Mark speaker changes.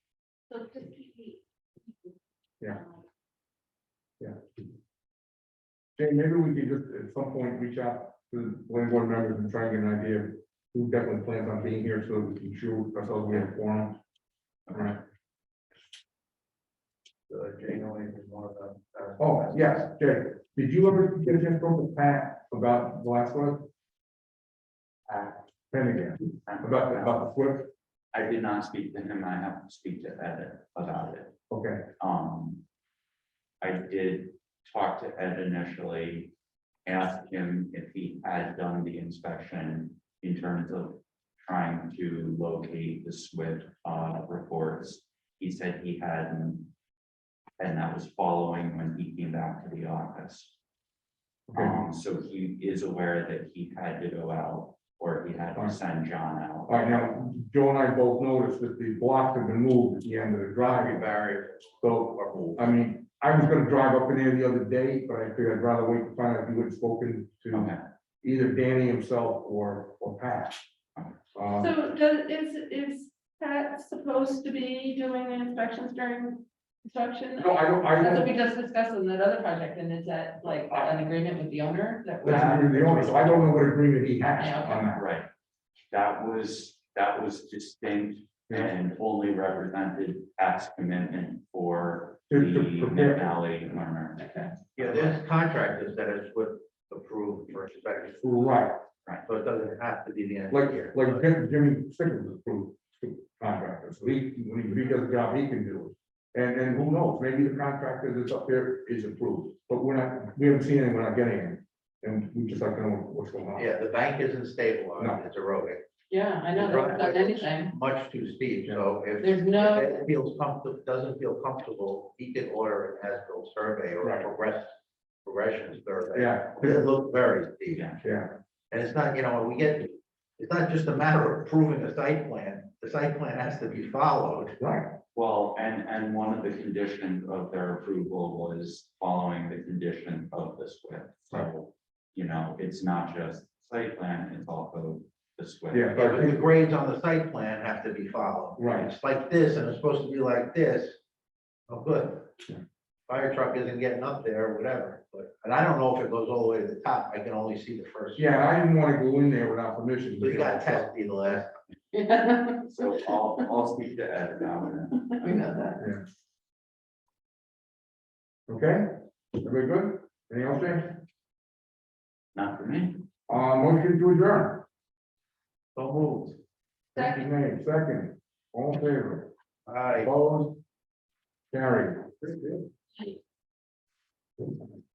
Speaker 1: So just keep me-
Speaker 2: Yeah. Jane, maybe we could just at some point reach out to the land board members and try and get an idea of who definitely plans on being here so we can show ourselves we have a forum. All right.
Speaker 3: Jane only is one of them.
Speaker 2: Oh, yes, Jay, did you ever get a chance to talk with Pat about the last one? Penn again, about, about the SWIP?
Speaker 4: I did not speak to him, I have to speak to Ed about it.
Speaker 2: Okay,
Speaker 4: Um. I did talk to Ed initially, asked him if he had done the inspection in terms of trying to locate the SWIP uh, reports. He said he hadn't. And that was following when he came back to the office.
Speaker 2: okay,
Speaker 4: Um, so he is aware that he had to go out or he had to send John out.
Speaker 2: all right, now, Joe and I both noticed that the blocks have been moved at the end of the driveway barrier, so I mean, I was gonna drive up in there the other day, but I figured I'd rather wait to find out if you had spoken to
Speaker 4: Okay,
Speaker 2: either Danny himself or, or Pat. Um,
Speaker 1: So does, is, is Pat supposed to be doing the inspections during construction?
Speaker 2: No, I don't, I
Speaker 5: That's what
Speaker 2: don't,
Speaker 5: we just discussed in that other project, and is that like an agreement with the owner that we
Speaker 2: that's really the only, so I don't know what agreement he has
Speaker 5: Yeah, okay.
Speaker 2: on that.
Speaker 4: right. That was, that was distinct and only represented Pat's commitment for the
Speaker 2: To- to prepare.
Speaker 4: Mid Valley Learner.
Speaker 3: Yeah, there's contractors that is with approved for inspection,
Speaker 2: Right,
Speaker 3: so it doesn't have to be the end.
Speaker 2: like,
Speaker 3: of the year.
Speaker 2: like Jim- Jimmy Stickles is approved contractor, so he, when he- if he does the job, he can do it. And, and who knows, maybe the contractor that's up there is approved, but we're not, we haven't seen it, we're not getting it. And we just like, to know what's going on.
Speaker 3: Yeah, the bank isn't stable,
Speaker 2: No.
Speaker 3: it's eroding,
Speaker 5: Yeah, I know, they haven't done anything.
Speaker 3: much too steep, so if.
Speaker 5: There's no-
Speaker 3: if Ed Feels comfortable, doesn't feel comfortable, he can order an as-built survey or
Speaker 2: Right.
Speaker 3: a progress, progression survey.
Speaker 2: Yeah,
Speaker 3: It looks very steep.
Speaker 4: Yeah.
Speaker 2: yeah.
Speaker 3: And it's not, you know, when we get, it's not just a matter of approving a site plan, the site plan has to be followed.
Speaker 2: Right,
Speaker 4: Well, and, and one of the conditions of their approval was following the condition of the SWIP. So, you know, it's not just site plan, it's also the SWIP.
Speaker 2: yeah, but I
Speaker 3: But the
Speaker 2: think,
Speaker 3: grades on the site plan have to be followed.
Speaker 2: right,
Speaker 3: It's like this, and it's supposed to be like this. Oh,
Speaker 2: Yeah.
Speaker 3: good. Fire truck isn't getting up there, whatever, but, and I don't know if it goes all the way to the top, I can only see the first.
Speaker 2: yeah, I didn't wanna go in there without permission.
Speaker 3: So you gotta test eh? me the last,
Speaker 5: We
Speaker 4: So I'll, I'll speak to Ed about it.
Speaker 5: know that.
Speaker 2: Okay, everybody good? Anything else, James?
Speaker 4: Not for me.
Speaker 2: Uh, motion to adjourn.
Speaker 3: don't move.
Speaker 2: Motion made, second, all in favor,
Speaker 3: All right.
Speaker 2: opposed? Carried.